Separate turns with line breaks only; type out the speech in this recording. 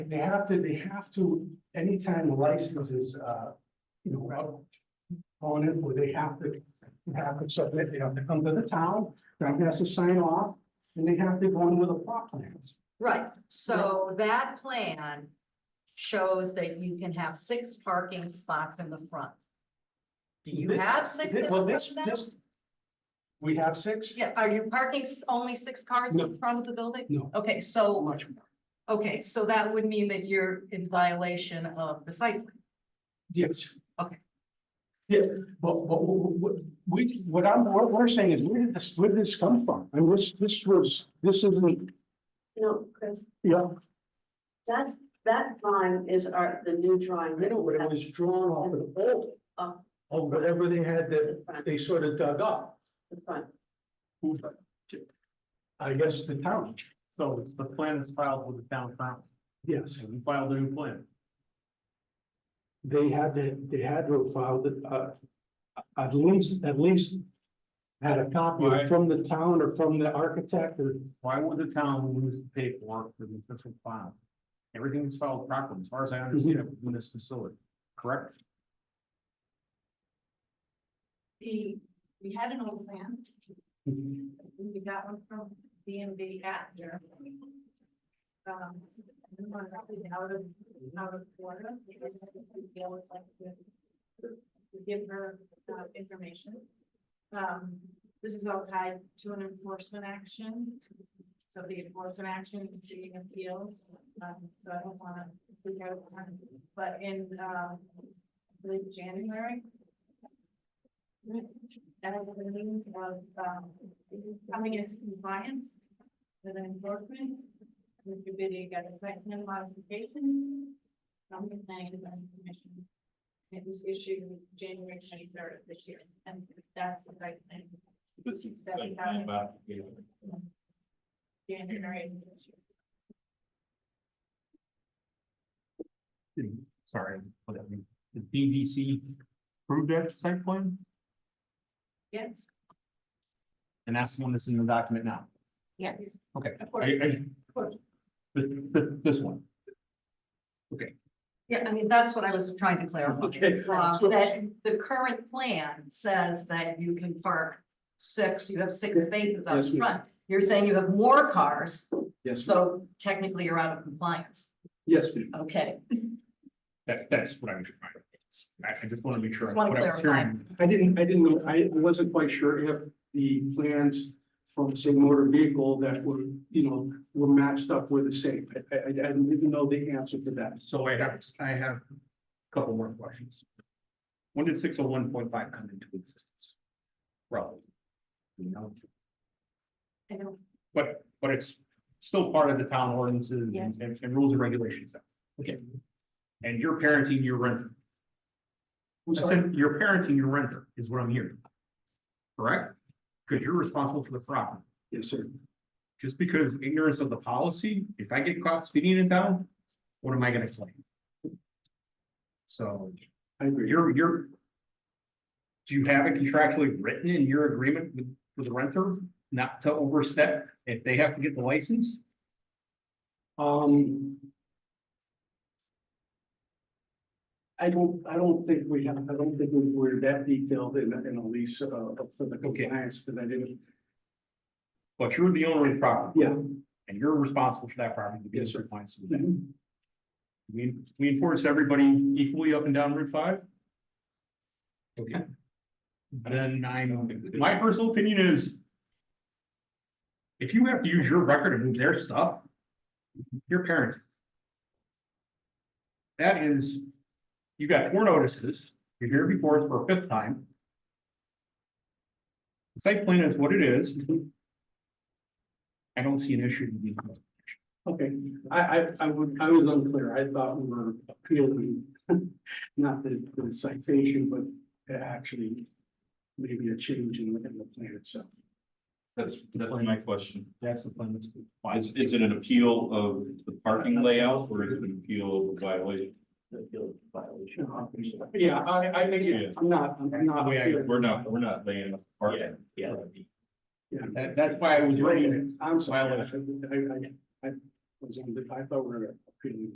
they have to, they have to, anytime the license is, uh, you know, out. On it, where they have to, they have to submit, they have to come to the town, town has to sign off, and they have to go in with a plot plan.
Right, so that plan shows that you can have six parking spots in the front. Do you have six? in the
Well,
front
this,
then?
this. We have six?
Yeah, are you parking s- only six cars in
No.
front of the building?
No,
Okay,
not
so,
much more.
okay, so that would mean that you're in violation of the site. plan.
Yes.
Okay.
Yeah, but, but, wh- wh- wh- we, what I'm, what we're saying is, where did this, where did this come from? And this, this was, this isn't,
No, Chris,
yeah,
that's, that drawing is our, the new drawing.
I know, but it was drawn off of the old.
Off.
Of whatever they had that,
The front,
they sort of dug up.
the front.
I guess the town,
So it's the plan that's filed with the town council,
yes,
so we filed a new plan.
they had to, they had to have filed it, uh. At least, at least. Had a copy
Right.
from the town or from the architect or,
Why would the town lose the paperwork for the official file? Everything is filed properly, as far as I understand it, in this facility, correct?
The, we had an old plan, we got one from DMV at here. Um, and one probably out of, out of Florida. because we deal with, like, the- we Give her uh, information. Um, this is all tied to an enforcement action. So the enforcement action is being appealed, um, so I don't wanna, freak out, um, but in, um, I believe January. That was the means of, um, coming into compliance with an enforcement. Mr. Biddy got a second modification from the planning and zoning commission. It was issued January twenty-third of this year, and that's the right thing. That we have January. of this year.
Sorry, whatever, the DGC approved that site plan,
Yes,
and that's the one that's in the document now.
yes.
Okay.
Of
I,
course.
I. This, this, this one.
Yeah, I mean, that's what I was trying to clarify.
Okay.
Uh,
So-
That the current plan says that you can park six, you have six spaces out
Yes, ma'am.
front. You're saying you have more cars,
yes,
so technically you're out of compliance.
yes, ma'am.
Okay,
That, that's what I'm trying to, I, I just want to make sure.
Just wanna
what I was
clarify.
hearing.
I didn't, I didn't, know- I wasn't quite sure if the plans from the same motor vehicle that were, you know, were matched up were the same. I, I, I didn't even know the answer to that.
So I have, I have a couple more questions. When did six oh one point five come into existence? Roughly. You know,
I know,
but, but it's still part of the town ordinances and-
Yes.
and, and rules and regulations. Okay. And you're parenting your renter.
I'm
I
sorry.
said, you're parenting your renter is what I'm hearing. Correct? Because you're responsible for the property.
Yes, sir.
Just because ignorance of the policy, if I get caught speeding in town, what am I gonna claim? So.
I agree.
You're, you're. Do you have it contractually written in your agreement with, with the renter not to overstep if they have to get the license?
Um. I don't, I don't think we have, I don't think we were that detailed in, in a lease, uh, for the compliance, because I didn't,
But you're the owner of the property.
yeah.
And you're responsible for that property to be in
Yes, sir.
compliance with that. We, we enforce everybody equally up and down Route five? Okay. Then I'm, my personal opinion is. If you have to use your record to move their stuff. Your parents. That is, you got four notices, you're here before us for a fifth time. The Site plan is what it is. I don't see an issue. with it.
Okay, I, I, I would, I was unclear. I thought we were appealing, not the, the citation, but actually maybe a change in, in the plan itself.
That's, that's my question.
That's the plan that's.
Is, is it an appeal of the parking layout or is it an appeal of the violation?
Yeah, I, I think, it- I'm not, I'm not.
Yeah.
appealing.
We're not, we're not laying up parking. Yeah.
Yeah.
That, that's why I was reading it.
I'm sorry, I,
Violation.
I, I, I was on the, I thought we were appealing.